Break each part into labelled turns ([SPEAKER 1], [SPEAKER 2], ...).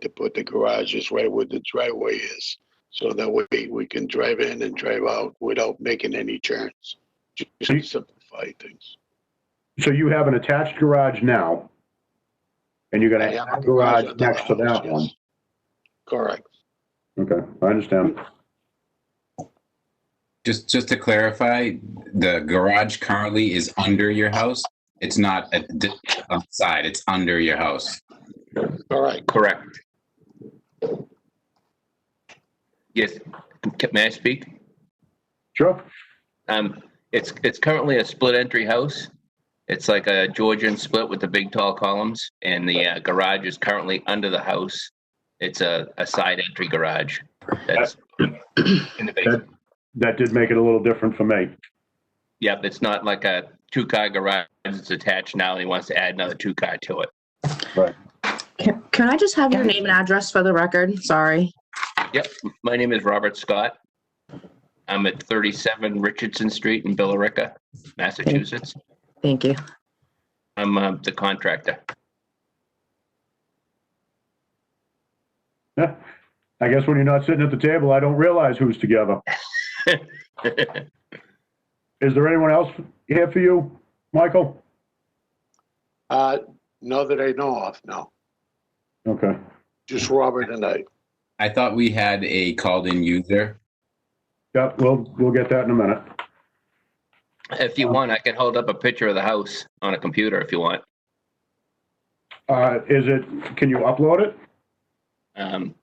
[SPEAKER 1] to put the garages right where the driveway is. So that way we can drive in and drive out without making any turns. Just to simplify things.
[SPEAKER 2] So you have an attached garage now, and you're
[SPEAKER 1] I
[SPEAKER 2] gonna
[SPEAKER 1] have
[SPEAKER 2] add a
[SPEAKER 1] a garage
[SPEAKER 2] garage
[SPEAKER 1] on the
[SPEAKER 2] next to
[SPEAKER 1] house,
[SPEAKER 2] that one.
[SPEAKER 1] yes. Correct.
[SPEAKER 2] Okay, I understand.
[SPEAKER 3] Just, just to clarify, the garage currently is under your house? It's not at the outside, it's under your house?
[SPEAKER 1] Correct.
[SPEAKER 4] Correct. Yes, Ca- may I speak?
[SPEAKER 2] Sure.
[SPEAKER 4] Um, it's, it's currently a split entry house. It's like a Georgian split with the big tall columns and the uh, garage is currently under the house. It's a, a side entry garage that's in the basement.
[SPEAKER 2] That did make it a little different for me.
[SPEAKER 4] Yep, it's not like a two car garage. It's attached now and he wants to add another two car to it.
[SPEAKER 5] Can, can I just have your name and address for the record? Sorry.
[SPEAKER 4] My name is Robert Scott. I'm at 37 Richardson Street in Billerica, Massachusetts.
[SPEAKER 5] Thank you.
[SPEAKER 4] I'm uh, the contractor.
[SPEAKER 2] Yeah. I guess when you're not sitting at the table, I don't realize who's together. Is there anyone else here for you, Michael?
[SPEAKER 1] Uh, no that I know of, no.
[SPEAKER 2] Okay.
[SPEAKER 1] Just Robert and I.
[SPEAKER 3] I thought we had a called-in user.
[SPEAKER 2] Yeah, we'll, we'll get that in a minute.
[SPEAKER 4] if you want, I can hold up a picture of the house on a computer if you want.
[SPEAKER 2] Uh, is it, can you upload it?
[SPEAKER 4] Um,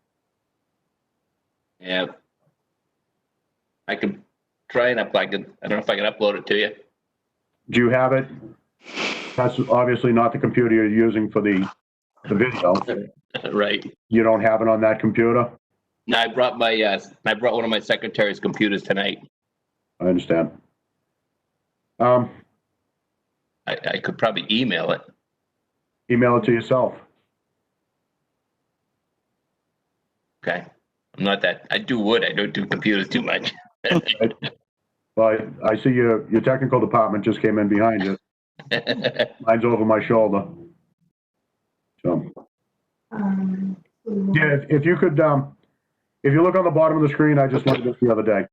[SPEAKER 4] yeah. I can try and up, I can, I don't know if I can upload it to you.
[SPEAKER 2] Do you have it? That's obviously not the computer you're using for the, the video.
[SPEAKER 4] Right.
[SPEAKER 2] You don't have it on that computer?
[SPEAKER 4] No, I brought my, uh, I brought one of my secretary's computers tonight.
[SPEAKER 2] I understand. Um,
[SPEAKER 4] I, I could probably email it.
[SPEAKER 2] email it to yourself.
[SPEAKER 4] Okay. I'm not that, I do wood. I don't do computers too much.
[SPEAKER 2] Well, I, I see your, your technical department just came in behind you. Mine's over my shoulder. So, yeah, if, if you could, um, if you look on the bottom of the screen, I just looked at this the other day.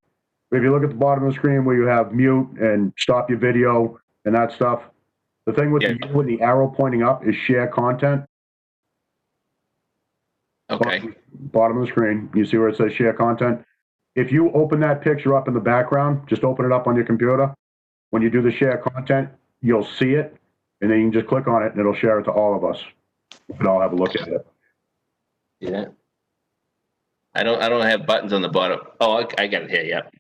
[SPEAKER 2] If you look at the bottom of the screen where you have mute and stop your video and that stuff, the thing with the, with the arrow pointing up is share content.
[SPEAKER 4] Okay.
[SPEAKER 2] Bottom of the screen, you see where it says share content. If you open that picture up in the background, just open it up on your computer. When you do the share content, you'll see it, and then you can just click on it, and it'll share it to all of us. We can all have a look at it.
[SPEAKER 4] Yeah. I don't, I don't have buttons on the bottom. Oh, I, I got it here, yep.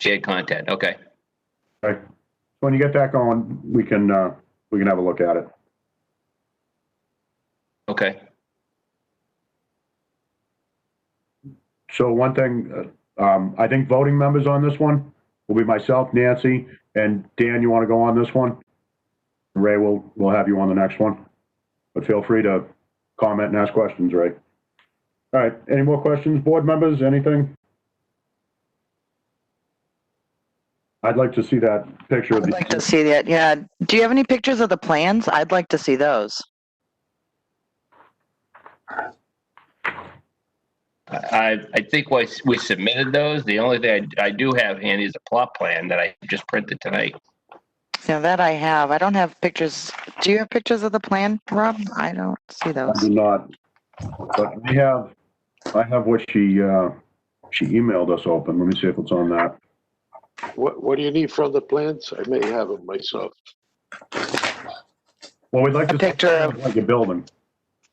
[SPEAKER 4] Shared content, okay.
[SPEAKER 2] When you get that going, we can, uh, we can have a look at it.
[SPEAKER 4] Okay,
[SPEAKER 2] So one thing, uh, um, I think voting members on this one will be myself, Nancy, and Dan, you want to go on this one? Ray, we'll, we'll have you on the next one, but feel free to comment and ask questions, Ray. All right, any more questions, board members, anything? I'd like to see that picture of
[SPEAKER 6] I'd like to
[SPEAKER 2] the,
[SPEAKER 6] see that, yeah. Do you have any pictures of the plans? I'd like to see those.
[SPEAKER 4] I, I think we, we submitted those. The only thing I, I do have handy is a plot plan that I just printed tonight.
[SPEAKER 6] Yeah, that I have. I don't have pictures. Do you have pictures of the plan, Rob? I don't see
[SPEAKER 2] I
[SPEAKER 6] those.
[SPEAKER 2] do not, but I have, I have what she, uh, she emailed us open, let me see if it's on that.
[SPEAKER 1] What, what do you need from the plans? I may have them myself.
[SPEAKER 2] Well, we'd like
[SPEAKER 6] A
[SPEAKER 2] to.
[SPEAKER 6] picture of-
[SPEAKER 2] Like your building.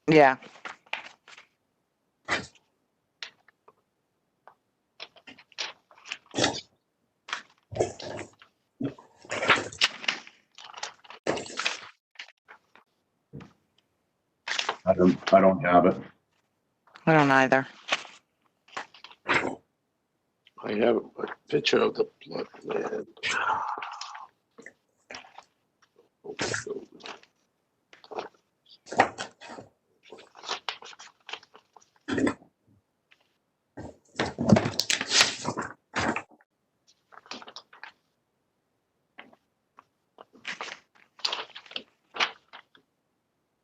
[SPEAKER 6] Yeah,
[SPEAKER 2] I don't, I don't have it.
[SPEAKER 6] I don't either.
[SPEAKER 1] I have a picture of the plot plan.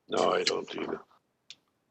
[SPEAKER 1] No, I don't either.